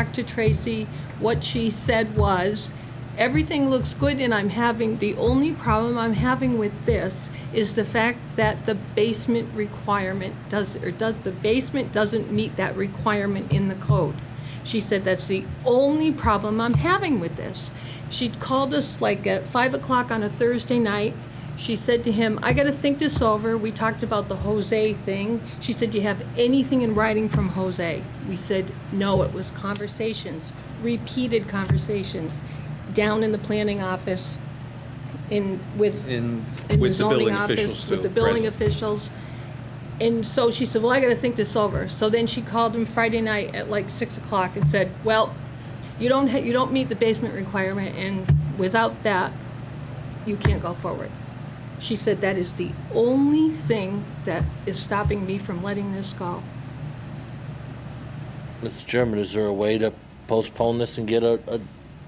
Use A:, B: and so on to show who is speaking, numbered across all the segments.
A: back to Tracy. What she said was, everything looks good and I'm having, the only problem I'm having with this is the fact that the basement requirement does, or does, the basement doesn't meet that requirement in the code. She said, that's the only problem I'm having with this. She called us like at five o'clock on a Thursday night. She said to him, I got to think this over. We talked about the Jose thing. She said, Do you have anything in writing from Jose? We said, No, it was conversations, repeated conversations, down in the planning office, in with
B: In,
A: in the
B: with the
A: zoning
B: building officials
A: office,
B: too.
A: with the building
B: present.
A: officials. And so she said, well, I gotta think this over. So then she called him Friday night at like six o'clock and said, well, you don't, ha- you don't meet the basement requirement and without that, you can't go forward. She said, that is the only thing that is stopping me from letting this go.
C: Mr. Chairman, is there a way to postpone this and get a, a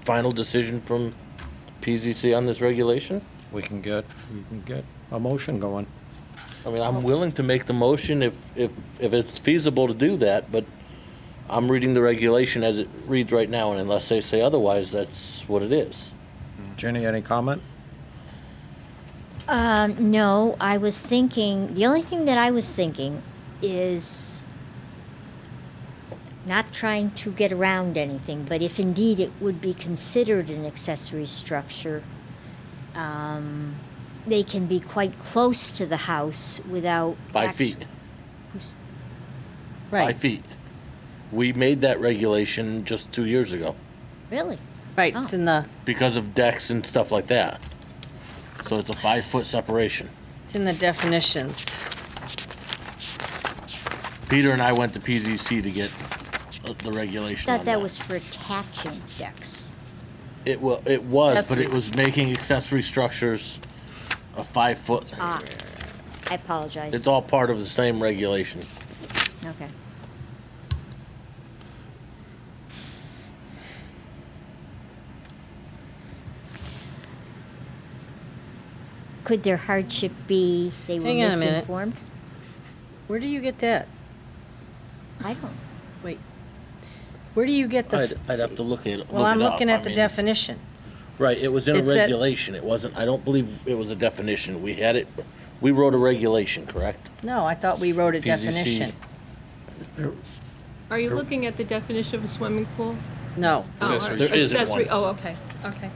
C: final decision from PZC on this regulation?
D: We can get, we can get a motion going.
C: I mean, I'm willing to make the motion if, if, if it's feasible to do that, but I'm reading the regulation as it reads right now, and unless they say otherwise, that's what it is.
D: Ginny, any comment?
E: Um, no, I was thinking, the only thing that I was thinking is not trying to get around anything, but if indeed it would be considered an accessory structure, um, they can be quite close to the house without.
C: Five
E: act-
C: feet,
E: Right.
C: five feet. We made that regulation just two years ago
E: Really?
F: Right, it's in the,
C: because of decks and stuff like that. So it's a five-foot separation.
F: it's in the definitions.
C: Peter and I went to PZC to get uh, the regulation on
E: Thought that was for attaching decks.
C: It wa, it was,
F: That's
C: but it
F: right.
C: was making accessory structures a five foot.
E: Ah, I apologize.
C: It's all part of the same regulation.
E: Okay. Could their hardship be they were
F: Hang on a minute.
E: misinformed?
F: Where do you get that?
E: I don't,
F: Wait. Where do you get the?
C: I'd,
F: f-
C: I'd have to look at, look it
F: Well, I'm
C: up.
F: looking
C: I
F: at the
C: mean,
F: definition.
C: Right, it was in a
F: It's at-
C: regulation. It wasn't, I don't believe it was a definition. We had it, we wrote a regulation, correct?
F: No, I thought we wrote a
C: PZC.
F: definition.
A: Are you looking at the definition of a swimming pool?
F: No.
A: Oh, all
B: Accessory.
A: right.
C: There isn't
A: Accessory-
C: one.
A: Oh, okay, okay.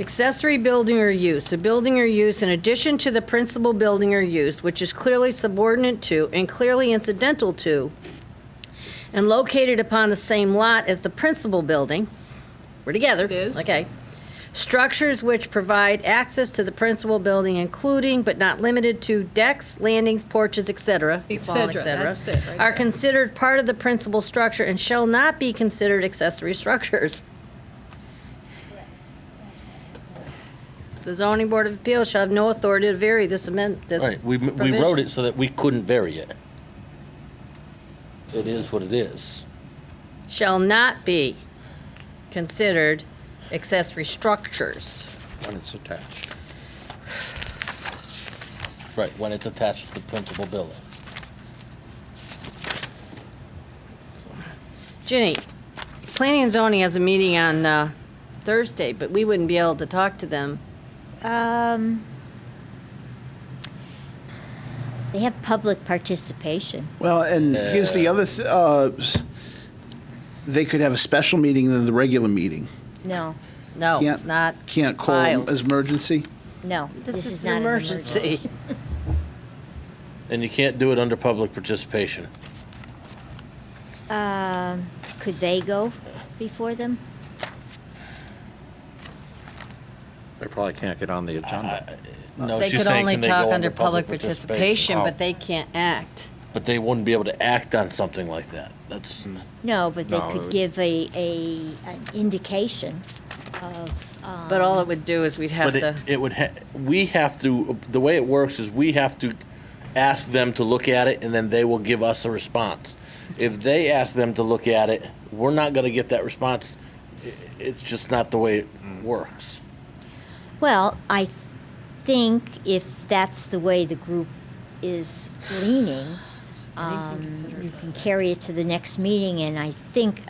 F: Accessory building or use, a building or use in addition to the principal building or use, which is clearly subordinate to and clearly incidental to, and located upon the same lot as the principal building, we're together.
A: It is.
F: Okay. Structures which provide access to the principal building, including but not limited to decks, landings, porches, et cetera.
A: Et
F: fall,
A: cetera, that's it right
F: Are
A: there.
F: considered part of the principal structure and shall not be considered accessory structures. The zoning board of appeals shall have no authority to vary this amendment, this
C: Right, we, we
F: provision.
C: wrote it so that we couldn't vary it. It is what it is.
F: Shall not be considered accessory structures.
D: When it's attached.
C: Right, when it's attached to the principal building.
F: Ginny, planning and zoning has a meeting on uh, Thursday, but we wouldn't be able to talk to them.
E: um, they have public participation.
G: Well, and here's the other, th- uh, s- they could have a special meeting than the regular meeting.
E: No,
F: No, it's
G: Can't-
F: not.
G: Can't call
F: filed.
G: as emergency.
E: no,
F: This is
E: not
F: an emergency.
C: And you can't do it under public participation.
E: Um, could they go before them?
D: They probably can't get on the agenda.
C: No,
F: They
C: she's
F: could
C: saying,
F: only
C: can they go
F: talk under public participation,
C: Oh.
F: but they can't act.
C: But they wouldn't be able to act on something like that. That's,
E: No, but they
D: No, it
E: could
D: would-
E: give a, a, an indication of,
F: But all it would do is we'd have
C: but
F: to,
C: it, it would, ha- we have to, the way it works is we have to ask them to look at it and then they will give us a response. If they ask them to look at it, we're not gonna get that response. I- It's just not the way it works.
E: Well, I think if that's the way the group is leaning, um, you can carry it to the next meeting, and I think